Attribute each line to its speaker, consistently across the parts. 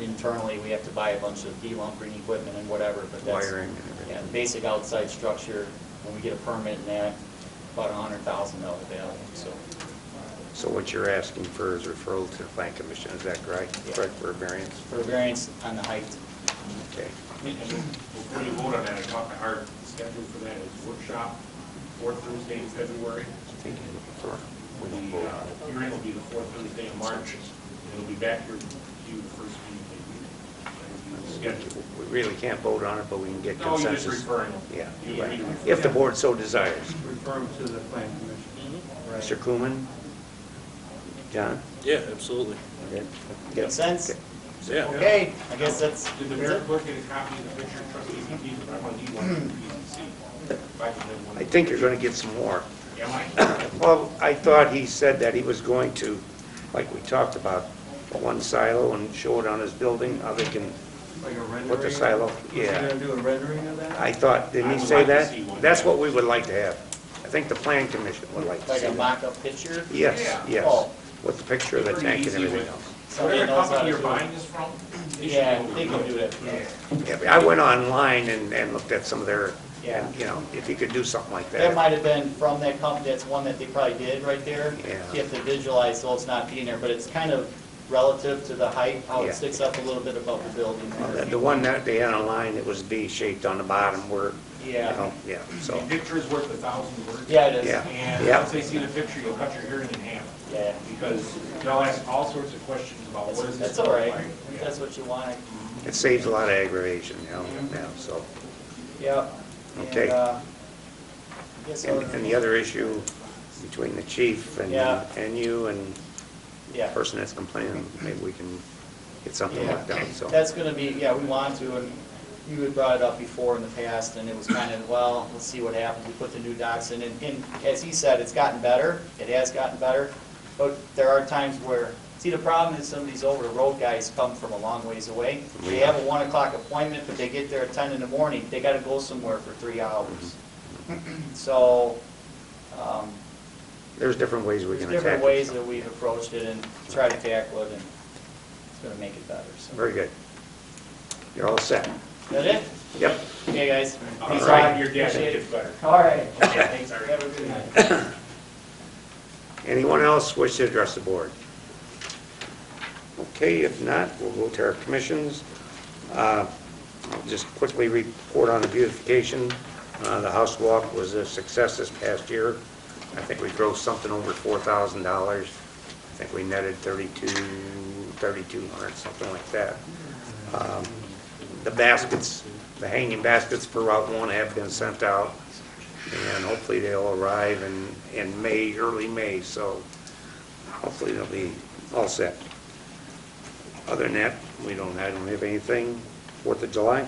Speaker 1: internally, we have to buy a bunch of de-lumbering equipment and whatever, but that's.
Speaker 2: Wiring and everything.
Speaker 1: Yeah, the basic outside structure, when we get a permit and that, about a hundred thousand dollar value, so.
Speaker 2: So what you're asking for is referral to the plan commission, is that correct?
Speaker 1: Yeah.
Speaker 2: Correct for a variance?
Speaker 1: For variance on the height,
Speaker 2: Okay.
Speaker 3: And Before you vote on that, I talked to Art, the schedule for that is workshop, fourth Thursday in February.
Speaker 2: I think you're looking for, we don't
Speaker 3: The
Speaker 2: vote
Speaker 3: uh,
Speaker 2: on it.
Speaker 3: hearing will be the fourth Thursday of March, and it'll be back here to you the first meeting. in May. Schedule.
Speaker 2: We really can't vote on it, but we can get
Speaker 3: No, you're just
Speaker 2: consensus.
Speaker 3: referring.
Speaker 2: Yeah,
Speaker 3: You
Speaker 2: right.
Speaker 3: need to refer.
Speaker 2: If the board so desires.
Speaker 4: Refer them to the plan commission. Right.
Speaker 2: Mr. Cooman? John?
Speaker 5: Yeah, absolutely.
Speaker 2: Okay.
Speaker 1: Make sense?
Speaker 5: Yeah.
Speaker 1: Okay, I guess that's,
Speaker 3: Did the
Speaker 1: that's
Speaker 3: mayor
Speaker 1: it.
Speaker 3: clerk get a copy of the picture of trustee McKee's, I want to need one from PCC. If I can have one.
Speaker 2: I think you're going to get some more.
Speaker 3: Am I?
Speaker 2: Well, I thought he said that he was going to, like we talked about, one silo and show it on his building, how they can,
Speaker 4: Like a rendering?
Speaker 2: What the silo- yeah.
Speaker 4: You're gonna do a rendering of that?
Speaker 2: I thought, didn't
Speaker 3: I
Speaker 2: he
Speaker 3: would
Speaker 2: say
Speaker 3: like to
Speaker 2: that?
Speaker 3: see one.
Speaker 2: That's what we would like to have. I think the planning commission would like to
Speaker 1: like
Speaker 2: see
Speaker 1: a
Speaker 2: that.
Speaker 1: mock-up picture.
Speaker 2: Yes,
Speaker 3: Yeah.
Speaker 2: yes,
Speaker 1: Oh.
Speaker 2: with the picture of the
Speaker 3: Pretty
Speaker 2: tank and
Speaker 3: easy
Speaker 2: everything
Speaker 3: with-
Speaker 2: else.
Speaker 1: Somebody
Speaker 3: Whatever
Speaker 1: knows how to
Speaker 3: company you're
Speaker 1: do it.
Speaker 3: buying this from. they should
Speaker 1: Yeah,
Speaker 3: know
Speaker 1: they
Speaker 3: what
Speaker 1: can
Speaker 3: it
Speaker 1: do
Speaker 3: is.
Speaker 1: that. Yeah.
Speaker 2: Yeah, but I went online and, and looked at some of their,
Speaker 1: Yeah.
Speaker 2: you know, if you could do something like
Speaker 1: That
Speaker 2: that.
Speaker 1: might have been from that company, that's one that they probably did right there.
Speaker 2: Yeah.
Speaker 1: You have to visualize, so it's not being there, but it's kind of relative to the height, how
Speaker 2: Yeah.
Speaker 1: it sticks up a little bit above the building
Speaker 2: Well,
Speaker 1: there.
Speaker 2: The the one that they had online, it was V-shaped on the bottom where, you
Speaker 1: Yeah.
Speaker 2: know, yeah, so,
Speaker 3: A picture is worth a thousand words.
Speaker 1: Yeah, it is.
Speaker 2: yeah,
Speaker 3: And
Speaker 2: yeah.
Speaker 3: once they see the picture, you'll cut your hearing in half,
Speaker 1: Yeah.
Speaker 3: because they'll ask all sorts of questions about what is this?
Speaker 1: That's all right.
Speaker 3: like?
Speaker 1: If that's what you want.
Speaker 2: It saves a lot of aggravation, you know, now, so.
Speaker 1: Yep.
Speaker 2: Okay.
Speaker 1: And, uh, I guess
Speaker 2: And,
Speaker 1: other-
Speaker 2: and the other issue between the chief and,
Speaker 1: Yeah.
Speaker 2: and you and the
Speaker 1: Yeah.
Speaker 2: person that's complaining, maybe we can get something worked out, so.
Speaker 1: That's gonna be, yeah, we want to, and you had brought it up before in the past, and it was kind of, well, let's see what happens, we put the new docks in, and, and as he said, it's gotten better, it has gotten better, but there are times where, see, the problem is some of these over-the-road guys come from a long ways away. They have a one o'clock appointment, but they get there at ten in the morning, they gotta go somewhere for three hours. So, um,
Speaker 2: There's different ways we
Speaker 1: there's
Speaker 2: can attack it.
Speaker 1: different ways
Speaker 2: so.
Speaker 1: that we've approached it and tried to tackle it, and it's gonna make it better, so.
Speaker 2: Very good. You're all set.
Speaker 1: That it?
Speaker 2: Yep.
Speaker 1: Okay, guys.
Speaker 3: I'll
Speaker 1: Peace
Speaker 3: try
Speaker 1: out.
Speaker 3: your dad,
Speaker 1: Appreciate
Speaker 3: it
Speaker 1: it.
Speaker 3: gets better.
Speaker 1: All right.
Speaker 3: Okay, thanks, Eric.
Speaker 1: Have a good night.
Speaker 2: Anyone else wish to address the board? Okay, if not, we'll go to our commissions. Uh, I'll Just quickly report on the beautification. Uh, The house walk was a success this past year. I think we drove something over $4,000. I think we netted 32, 3,200, something like that. Um, The baskets, the hanging baskets for Route 1 have been sent out, and hopefully they'll arrive in, in May, early May, so hopefully they'll be all set. Other than that, we don't, I don't have anything. Fourth of July?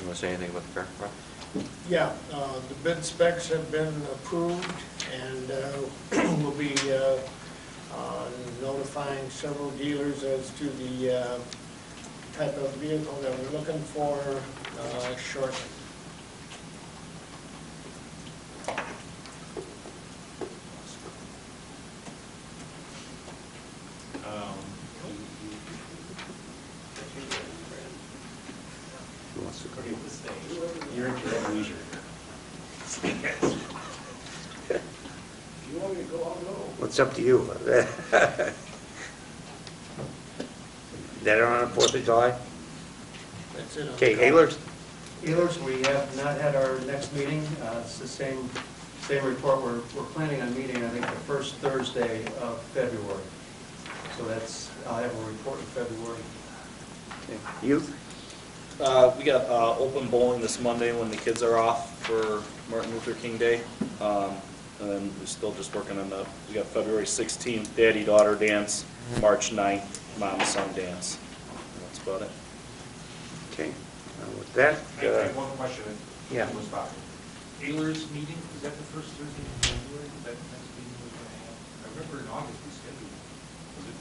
Speaker 6: You want to say anything about the current project?
Speaker 7: Yeah, uh, the bid specs have been approved, and uh, we'll be uh, uh, notifying several dealers as to the uh, type of vehicle that we're looking for uh, shortly.
Speaker 3: Um,
Speaker 2: Who wants to go?
Speaker 3: okay, let's say, You're at your own leisure.
Speaker 2: What's up to you? That on the Fourth of July?
Speaker 7: That's it.
Speaker 2: Okay, Haylers?
Speaker 4: Healers, we have not had our next meeting. Uh, It's the same, same report. We're, we're planning on meeting, I think, the first Thursday of February. So that's, I'll have a report in February.
Speaker 2: Youth?
Speaker 5: Uh, we got, uh, open bowling this Monday when the kids are off for Martin Luther King Day. Um, and then we're still just working on the, we got February sixteenth, daddy-daughter dance, March 9th, mom-son dance. That's about it.
Speaker 2: Okay, Uh, with that,
Speaker 3: I I have
Speaker 2: uh,
Speaker 3: one question.
Speaker 2: yeah.
Speaker 3: It was about Ayler's meeting, is that the first Thursday in February? Is that the next meeting we're going to have? I remember in August we scheduled. it. Was it-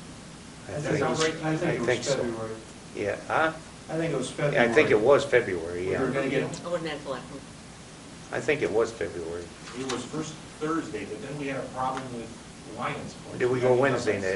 Speaker 2: I
Speaker 3: Does that
Speaker 2: think-
Speaker 3: sound right?
Speaker 4: I
Speaker 2: I
Speaker 4: think it
Speaker 2: think
Speaker 4: was
Speaker 2: so.
Speaker 4: February.
Speaker 2: yeah, huh?
Speaker 4: I think it was
Speaker 2: Yeah,
Speaker 4: February.
Speaker 2: I think it was February,
Speaker 4: We were
Speaker 2: yeah.
Speaker 4: gonna get,
Speaker 8: I wouldn't have left.
Speaker 2: I think it was February.
Speaker 3: It was first Thursday, but then we had a problem with Lions.
Speaker 2: Did we go Wednesday night?